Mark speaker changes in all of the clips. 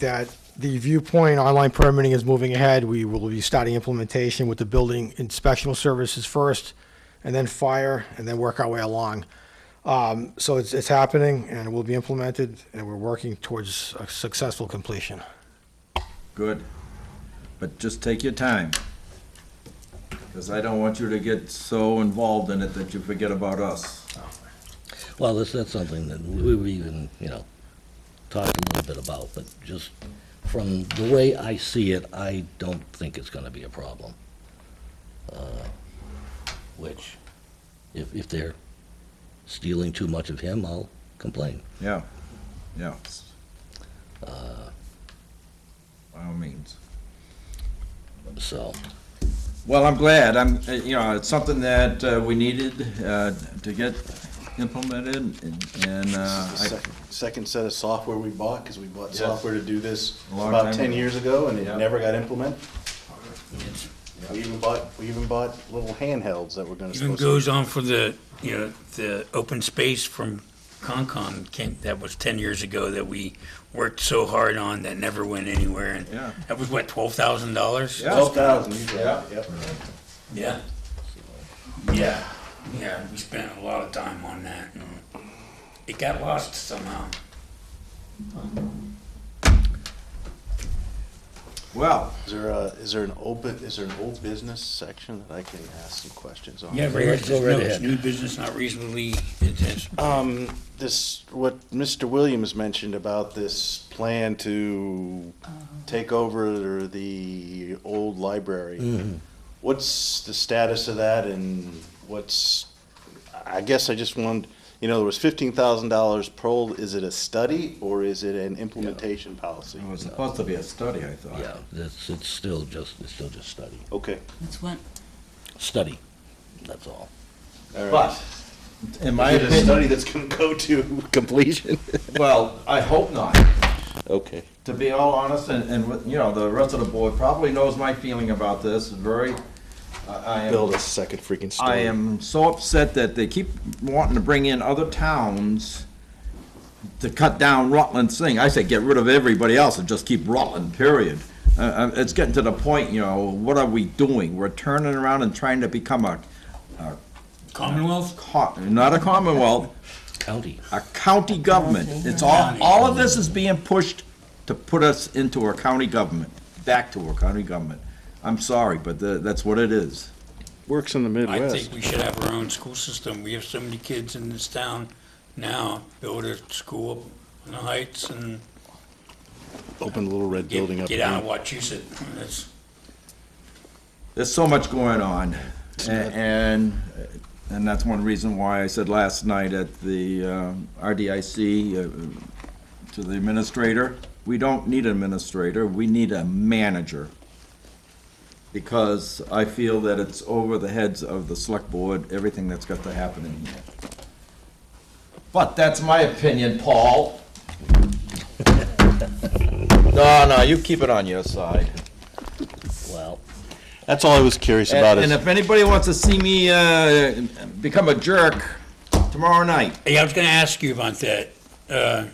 Speaker 1: that the viewpoint online permitting is moving ahead. We will be starting implementation with the building inspectional services first, and then fire, and then work our way along. Um, So it's, it's happening, and it will be implemented, and we're working towards a successful completion.
Speaker 2: Good. But just take your time. Because I don't want you to get so involved in it that you forget about us.
Speaker 3: Well, that's, that's something that we were even, you know, talking a little bit about, but just from the way I see it, I don't think it's gonna be a problem. Uh, Which, if, if they're stealing too much of him, I'll complain.
Speaker 2: Yeah, yeah.
Speaker 4: Uh.
Speaker 2: By all means.
Speaker 3: So,
Speaker 2: Well, I'm glad. I'm, uh, you know, it's something that uh, we needed uh, to get implemented and- and uh,
Speaker 4: This is the
Speaker 2: I-
Speaker 4: second, second set of software we bought, because we bought
Speaker 2: Yes.
Speaker 4: software to do this
Speaker 2: A long
Speaker 4: about
Speaker 2: time
Speaker 4: ten
Speaker 2: ago.
Speaker 4: years ago, and it
Speaker 2: Yeah.
Speaker 4: never got implemented. We even bought, we even bought little handhelds that were gonna.
Speaker 5: Even
Speaker 4: supposed
Speaker 5: goes on for the, you know, the open space from Concom, came- that was 10 years ago that we worked so hard on that never went anywhere. and
Speaker 2: Yeah.
Speaker 5: That was what, $12,000?
Speaker 2: Yeah.
Speaker 4: Twelve thousand, usually,
Speaker 2: Yeah.
Speaker 4: yep.
Speaker 5: Yeah. Yeah, yeah, we spent a lot of time on that. and It got lost somehow.
Speaker 2: well,
Speaker 4: Is there a, is there an open, is there an old business section that I can ask some questions on?
Speaker 5: Yeah, right here, it
Speaker 3: Let's go
Speaker 5: says,
Speaker 3: right
Speaker 5: no, it's
Speaker 3: ahead.
Speaker 5: new business not reasonably, it says,
Speaker 4: Um, this, what Mr. Williams mentioned about this plan to take over the old library. What's the status of that and what's, I guess I just wanted, you know, there was fifteen thousand dollars per, is it a study or is it an implementation policy?
Speaker 2: it was supposed to be a study, I thought.
Speaker 3: yeah, it's, it's still just, it's still just study.
Speaker 4: Okay,
Speaker 6: That's what,
Speaker 3: Study, that's all.
Speaker 4: all right.
Speaker 2: But, in my
Speaker 4: Is it a study
Speaker 2: opinion,
Speaker 4: that's gonna go to completion?
Speaker 2: well, I hope not.
Speaker 4: Okay.
Speaker 2: to be all honest, and, and, with- you know, the rest of the board probably knows my feeling about this, very, I I am.
Speaker 4: Build a second freaking story.
Speaker 2: I am so upset that they keep wanting to bring in other towns to cut down Rutland's thing. I say get rid of everybody else and just keep Rutland, period. Uh, Uh, it's getting to the point, you know, what are we doing? We're turning around and trying to become a,
Speaker 5: Commonwealth?
Speaker 2: co- not a commonwealth,
Speaker 3: County,
Speaker 2: a county government. It's all, all of this is being pushed to put us into our county government, back to our county government. I'm sorry, but tha- that's what it is.
Speaker 4: Works in the Midwest.
Speaker 5: I think we should have our own school system. We have so many kids in this town now, build a school up in the Heights and
Speaker 4: Open the little red building
Speaker 5: get,
Speaker 4: up.
Speaker 5: get out
Speaker 4: again.
Speaker 5: of Wachusett. That's,
Speaker 2: There's so much going on, a- and, and that's one reason why I said last night at the um, RDIC uh, to the administrator, we don't need an administrator, we need a manager. Because I feel that it's over the heads of the select board, everything that's got to happen in here. But that's my opinion, Paul. No, no, you keep it on your side.
Speaker 3: well,
Speaker 4: That's all I was curious about.
Speaker 2: And,
Speaker 4: is-
Speaker 2: and if anybody wants to see me uh, become a jerk tomorrow night,
Speaker 5: hey, I was gonna ask you about that. Uh,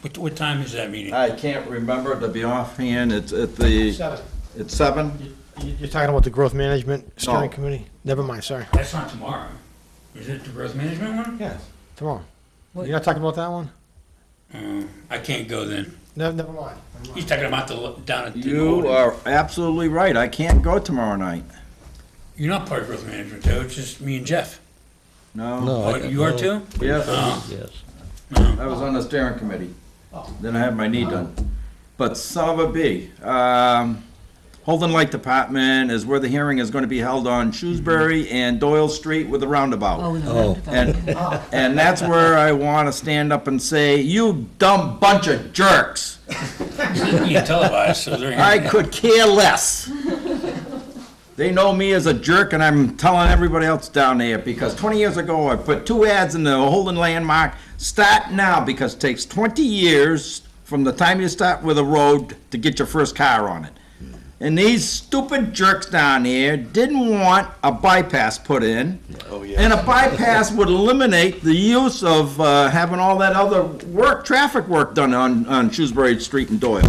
Speaker 5: what, what time is that meeting?
Speaker 2: I can't remember to be offhand. It's at the it's seven.
Speaker 1: You're talking about the growth management steering
Speaker 2: No.
Speaker 1: committee? Never mind, sorry.
Speaker 5: That's not tomorrow. Is it the growth management one?
Speaker 1: Yes. Tomorrow. You're
Speaker 6: What-
Speaker 1: not talking about that one?
Speaker 5: Mm, I can't go then.
Speaker 1: No, never mind.
Speaker 5: He's talking about the, lo- down at the.
Speaker 2: You
Speaker 5: Norton.
Speaker 2: are absolutely right. I can't go tomorrow night.
Speaker 5: You're not part of growth management, though. It's just me and Jeff.
Speaker 2: No.
Speaker 3: no.
Speaker 5: Oh,
Speaker 3: I-
Speaker 5: you are
Speaker 3: no,
Speaker 5: too?
Speaker 2: Yes,
Speaker 5: Oh,
Speaker 3: Yes.
Speaker 2: I was on the steering committee. Then I had my knee done. But son of a bee, um, Holden Light Department is where the hearing is going to be held on Shrewsbury and Doyle Street with the roundabout.
Speaker 6: oh, the
Speaker 3: Oh,
Speaker 6: roundabout.
Speaker 2: And, and that's where I want to stand up and say, you dumb bunch of jerks.
Speaker 5: It's being televised, so they're.
Speaker 2: I could care less. They know me as a jerk and I'm telling everybody else down there because 20 years ago, I put two ads in the Holden Landmark. Start now because it takes 20 years from the time you start with a road to get your first car on it. And these stupid jerks down here didn't want a bypass put in.
Speaker 4: Oh, yeah.
Speaker 2: And a bypass would eliminate the use of uh, having all that other work, traffic work done on, on Shrewsbury Street and Doyle.